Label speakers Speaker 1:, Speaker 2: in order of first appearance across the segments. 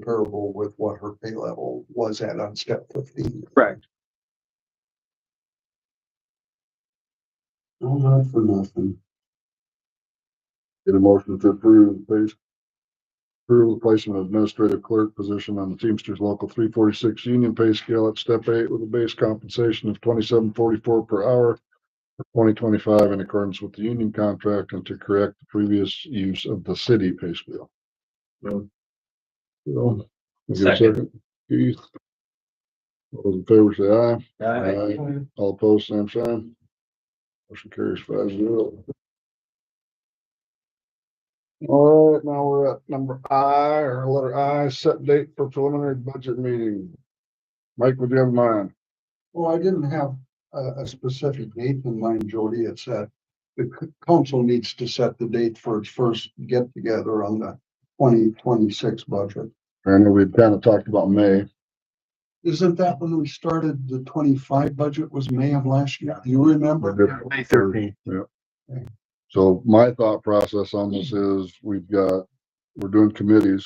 Speaker 1: comparable with what her pay level was at on step fifteen.
Speaker 2: Correct.
Speaker 1: No, not for nothing.
Speaker 3: Get a motion to approve, please. Approve the placement of administrative clerk position on the Teamsters Local three forty-six union pay scale at step eight with a base compensation of twenty-seven forty-four per hour for twenty twenty-five in accordance with the union contract and to correct the previous use of the city pay scale. Well, is there a Second. Keith. All those in favor say aye. Aye. All opposed, same sign. Motion carries five zero. All right, now we're at number I or letter I, set date for preliminary budget meeting. Mike, would you have mine?
Speaker 1: Well, I didn't have a, a specific date in mind, Jody. It's that the c- council needs to set the date for its first get together on the twenty twenty-six budget.
Speaker 3: I know we've kind of talked about May.
Speaker 1: Isn't that when we started the twenty-five budget was May of last year? Do you remember?
Speaker 2: May thirteenth.
Speaker 3: So my thought process on this
Speaker 1: Hmm.
Speaker 3: is we've got, we're doing committees.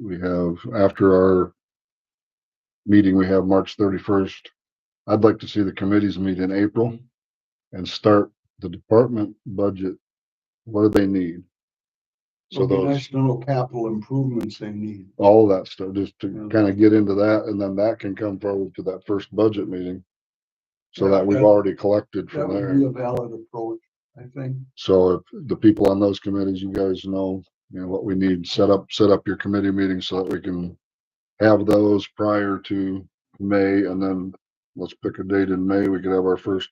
Speaker 3: We have, after our meeting, we have March thirty-first. I'd like to see the committees meet in April
Speaker 1: Hmm.
Speaker 3: and start the department budget. What do they need? So
Speaker 1: It'd be
Speaker 3: those,
Speaker 1: nice to know capital improvements they need.
Speaker 3: all that stuff, just
Speaker 1: Hmm.
Speaker 3: to kind of get into that and then that can come forward to that first budget meeting. So that we've already collected
Speaker 1: That
Speaker 3: from there.
Speaker 1: would be a valid approach, I think.
Speaker 3: So if the people on those committees, you guys know, you know, what we need, set up, set up your committee meetings so that we can have those prior to May and then let's pick a date in May. We could have our first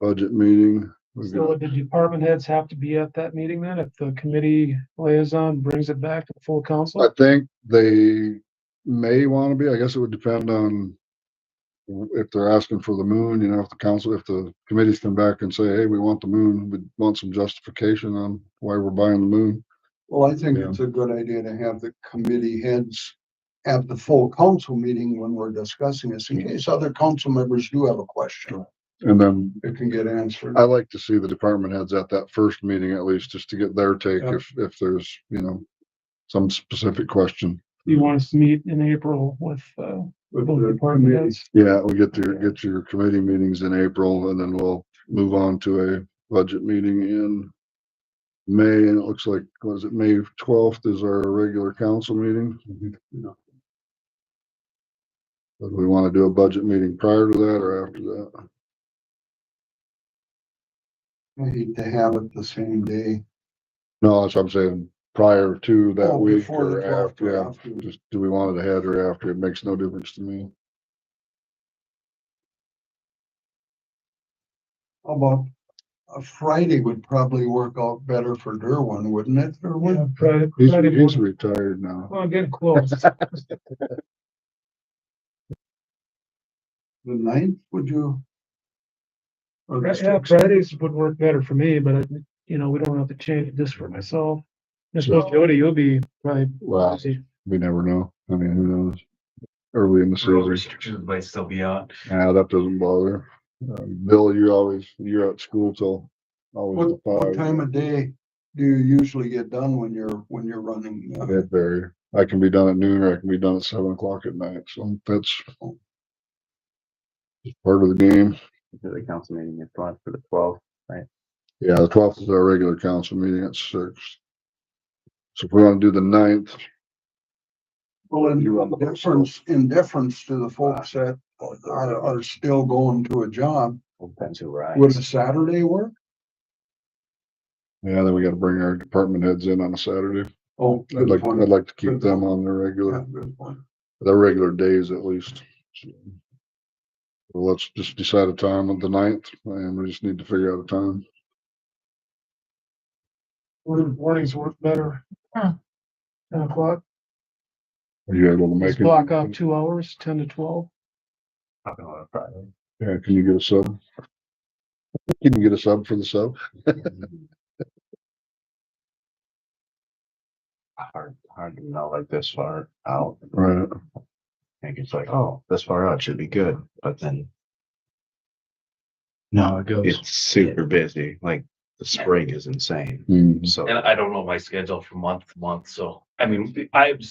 Speaker 3: budget meeting. We
Speaker 4: So
Speaker 3: could-
Speaker 4: would the department heads have to be at that meeting then, if the committee liaison brings it back to the full
Speaker 3: I
Speaker 4: council?
Speaker 3: think they may want to be, I guess it would depend on if they're asking for the moon, you know, if the council, if the committees come back and say, hey, we want the moon, we want some justification on why we're buying the moon.
Speaker 1: Well, I think
Speaker 3: Yeah.
Speaker 1: it's a good idea to have the committee heads have the full council meeting when we're discussing this, in case other council members do have a question.
Speaker 3: And then
Speaker 1: It can get answered.
Speaker 3: I like to see the department heads at that first meeting at least, just to get their take
Speaker 4: Yep.
Speaker 3: if, if there's, you know, some specific question.
Speaker 4: You want us to meet in April with, uh,
Speaker 1: With
Speaker 4: both
Speaker 1: the
Speaker 4: department
Speaker 1: committee.
Speaker 4: heads?
Speaker 3: Yeah, we get your, get your committee meetings in April and then we'll move on to a budget meeting in May. And it looks like, was it May twelfth is our regular council meeting?
Speaker 1: Yeah.
Speaker 3: But we want to do a budget meeting prior to that or after that?
Speaker 1: I hate to have it the same day.
Speaker 3: No, that's what I'm saying, prior to that
Speaker 1: Oh,
Speaker 3: week
Speaker 1: before the
Speaker 3: or
Speaker 1: 12th or
Speaker 3: after, yeah.
Speaker 1: after.
Speaker 3: Just, do we want it ahead or after? It makes no difference to me.
Speaker 1: How about, a Friday would probably work out better for Derwin, wouldn't it,
Speaker 4: Yeah,
Speaker 1: Derwin?
Speaker 4: Friday,
Speaker 3: He's,
Speaker 4: Friday
Speaker 3: he's
Speaker 4: morning.
Speaker 3: retired now.
Speaker 4: Well, get close.
Speaker 1: The ninth, would you? Or the
Speaker 4: Yeah,
Speaker 1: sixth?
Speaker 4: Fridays would work better for me, but, I- you know, we don't have to change this for myself. I suppose Jody, you'll be probably
Speaker 3: Well,
Speaker 4: busy.
Speaker 3: we never know. I mean, who knows? Early in the
Speaker 5: Road
Speaker 3: season.
Speaker 5: restrictions might still be out.
Speaker 3: Yeah, that doesn't bother. Um, Bill, you're always, you're at school till always
Speaker 1: What,
Speaker 3: at
Speaker 1: what
Speaker 3: five.
Speaker 1: time of day do you usually get done when you're, when you're running? uh,
Speaker 3: That vary. I can be done at noon or I can be done at seven o'clock at night. So that's part of the game.
Speaker 5: The council meeting is planned for the twelfth.
Speaker 3: Yeah, the twelfth is our regular council meeting at six. So if we want to do the ninth,
Speaker 1: Well, in
Speaker 3: You run the whole Ah. Oh,
Speaker 1: difference, in deference to the folks that are, are still going to a job,
Speaker 5: Depends who rides.
Speaker 1: would a Saturday work?
Speaker 3: yeah, then we got to bring our department heads in on a Saturday.
Speaker 1: Oh.
Speaker 3: I'd
Speaker 1: good
Speaker 3: like,
Speaker 1: point.
Speaker 3: I'd like to keep
Speaker 1: Good
Speaker 3: them
Speaker 1: point.
Speaker 3: on the regular.
Speaker 1: Yeah, good point.
Speaker 3: their regular days at least. So, Well, let's just decide a time on the ninth and we just need to figure out a time.
Speaker 4: Morning- Mornings work better. Ten o'clock,
Speaker 3: Are you able to make
Speaker 4: just
Speaker 3: it?
Speaker 4: block off two hours, ten to twelve.
Speaker 5: Talking on a Friday.
Speaker 3: Yeah, can you get a sub? Can you get a sub for the sub?
Speaker 5: Hard, hard to know like this far out.
Speaker 3: Right.
Speaker 5: I think it's like, oh, this far out should be good, but then. No, it goes. It's super busy. Like the spring is insane.
Speaker 3: Mhm.
Speaker 5: So.
Speaker 6: And I don't know my schedule from month to month, so, I mean, I